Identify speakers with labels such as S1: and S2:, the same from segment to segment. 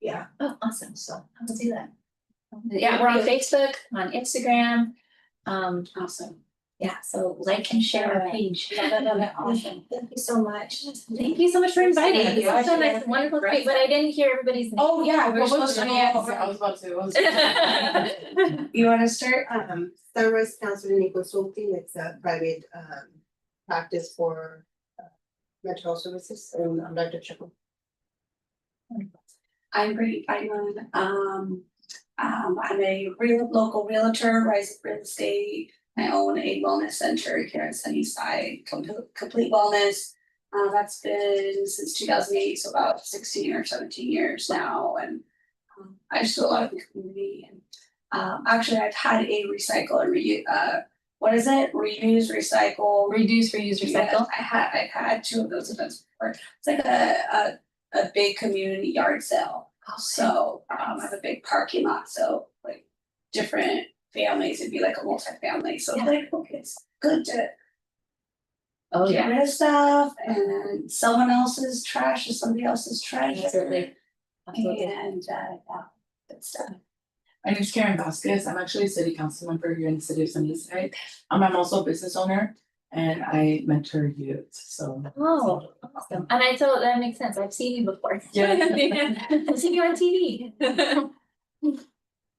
S1: Yeah.
S2: Oh, awesome, so I will do that. Yeah, we're on Facebook, on Instagram, um,
S3: Awesome.
S2: yeah, so like and share our page.
S1: Awesome. Thank you so much.
S2: Thank you so much for inviting me,
S3: Yeah.
S2: it's such a nice, wonderful treat, but I didn't hear everybody's name.
S1: Oh, yeah,
S3: We're supposed to, yeah, I was about to. I was-
S1: You wanna start?
S4: Um, Sunrise Counseling and Consulting, it's a private um practice for uh, mental health services, and I'm Dr. Chacon.
S3: I'm Brittany Feynman, um, um, I'm a real, local realtor, rise real estate. I own a wellness center here in Sunnyside, Complete, Complete Wellness. Uh, that's been since two thousand eight, so about sixteen or seventeen years now, and um, I just do a lot of the community and um, actually, I've had a recycle and reuse, uh, what is it? Reuse, recycle,
S2: Reduce, reuse,
S3: Yeah, I had, I've had two of those events before. It's like a, a, a big community yard sale.
S2: Oh,
S3: So, um, I have a big parking lot, so like different families, it'd be like a multi-family, so it's like, okay, it's good to
S2: Oh,
S3: get
S2: yeah,
S3: rid of stuff and someone else's trash is somebody else's treasure.
S2: absolutely. Absolutely.
S3: And, uh, yeah, good stuff.
S5: My name's Karen Vasquez. I'm actually a city council member here in the city of Sunnyside. Um, I'm also a business owner and I mentor youth, so.
S2: Oh, awesome, and I thought that makes sense, I've seen you before.
S5: Yeah.
S2: I've seen you on TV.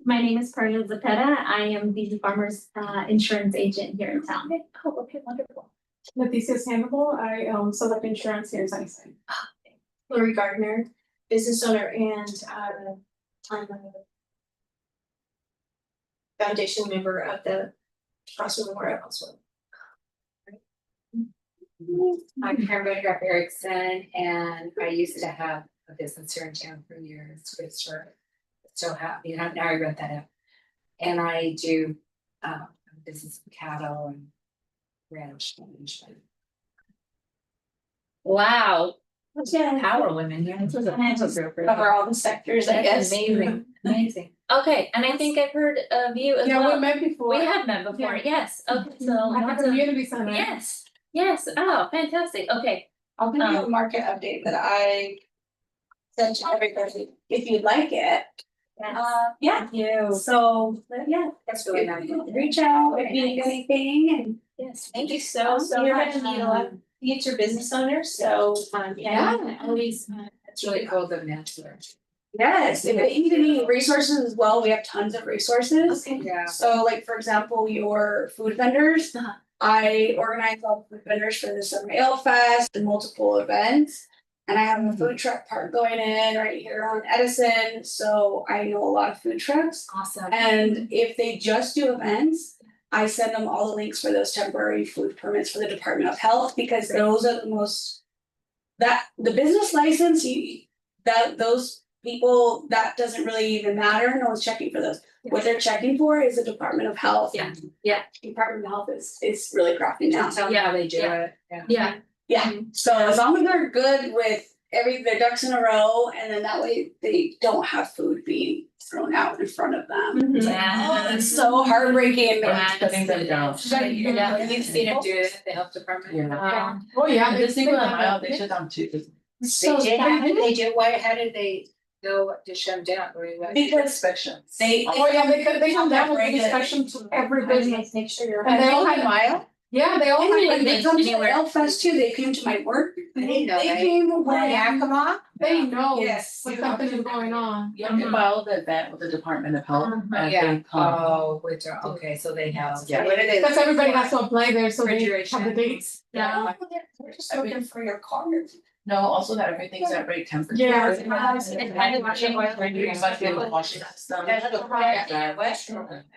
S6: My name is Parna Zapeta. I am the farmer's uh insurance agent here in town.
S2: Oh, okay, wonderful.
S7: Leticia Sandoval, I own Select Insurance here in Sunnyside.
S1: Lori Gardner, business owner and um I'm a foundation member of the Crossroad Memorial Council.
S8: I'm Karen Bodegger Erickson and I used to have a business here in town for years, which are still have, you know, now I wrote that up. And I do um business with cattle and ranch management.
S2: Wow,
S3: Yeah.
S2: power women, yeah, this was a.
S3: And I just Cover all the sectors, I
S2: That's
S3: guess.
S2: amazing, amazing. Okay, and I think I've heard of you as
S7: Yeah, we
S2: well.
S7: met before.
S2: We have met before, yes, okay,
S1: Mm-hmm.
S2: so
S7: At
S2: lots
S7: the
S2: of,
S7: community center.
S2: yes, yes, oh, fantastic, okay.
S3: I'll give you a
S2: Um,
S3: market update that I sent to everybody, if you'd like it. Uh, yeah,
S2: You.
S3: so, but yeah,
S8: That's really nice.
S3: reach out if you need anything
S2: Yes,
S1: Thank you so, so
S3: You're
S1: much.
S3: gonna need a lot
S1: Um, Future business owners, so um yeah, always uh,
S8: It's really called the mentor.
S3: and. Yes, if you need any resources as well, we have tons of resources.
S8: Yeah.
S3: So like, for example, your food vendors.
S2: Uh-huh.
S3: I organize all the food vendors for the Summer Ale Fest and multiple events. And I have a food truck park going in right here on Edison, so I know a lot of food trucks.
S2: awesome.
S3: And if they just do events, I send them all the links for those temporary food permits for the Department of Health because those are the most. That the business license, you that those people, that doesn't really even matter, no one's checking for those. What they're checking for is the Department of Health.
S2: Yeah, yeah.
S3: Department of Health is is really crafting now.
S8: Tell them
S2: Yeah,
S8: how they do
S2: yeah.
S8: it, yeah.
S2: Yeah,
S3: So as long as they're good with every their ducks in a row, and then that way they don't have food being thrown out in front of them. Oh,
S7: Mm-hmm.
S2: yeah.
S3: it's so heartbreaking.
S5: Or just cutting them down.
S2: Yeah,
S8: You've seen them do it, at the health department.
S5: Yeah.
S2: Um,
S7: Oh, yeah.
S5: The single mile, they shut down too.
S8: They did, how did they do, why, how did they know to shut them down, or what?
S3: Because
S5: Inspections.
S3: they
S7: Oh, yeah, they could, they come down with
S3: Right.
S7: an inspection to every business.
S1: always make sure you're.
S7: And
S2: Oh,
S7: they all
S3: Open
S7: had, yeah, they all
S2: I
S7: had,
S2: mean,
S3: When they
S2: Business
S3: come to
S2: anywhere.
S3: Elf Fest too, they came to my work.
S8: I didn't know
S3: They
S8: that.
S3: came
S8: Or in
S3: when, Oh.
S8: Yakima?
S7: they know
S3: yes.
S7: when something is going on.
S1: Mm-hmm.
S7: Mm-hmm.
S5: You have to file the event with the Department of Health
S7: Mhm.
S5: and
S8: Mm-hmm. Yeah,
S5: they come.
S8: oh, which are, okay, so they know.
S5: Yeah.
S8: What it is.
S7: Because everybody has to apply there, so they have the
S8: Refrigeration.
S7: dates.
S3: Yeah, we're just looking for your card.
S5: No, also that everything's at right temperature.
S7: Yeah.
S2: It's kind of like-
S5: Must be able to wash it up, so-
S1: Yeah,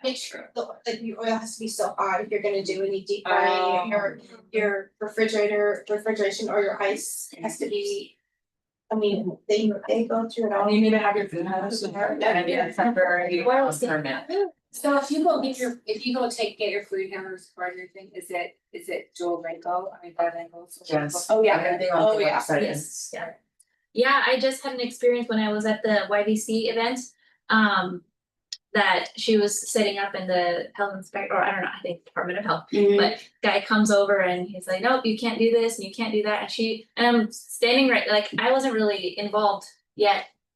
S1: Make sure the like your oil has to be so hot if you're gonna do any deep frying, your your refrigerator, refrigeration or your ice has to be. I mean, they they go through it all.
S5: And you need to have your food house. And it's temporary.
S2: Where else?
S5: Permit.
S8: So if you go get your, if you go take, get your food hammers or your thing, is it, is it dual wrinkle, I mean, bilingual? so-
S5: Yes.
S3: Oh, yeah.
S5: Everything on
S3: Oh,
S5: the
S3: yeah.
S5: website
S2: Yes.
S5: is.
S2: Yeah, I just had an experience when I was at the YVC event, um, that she was setting up in the health inspector, or I don't know, I think Department of Health guy comes over and he's like, nope, you can't do this and you can't do that. And she, and I'm standing right, like I wasn't really involved yet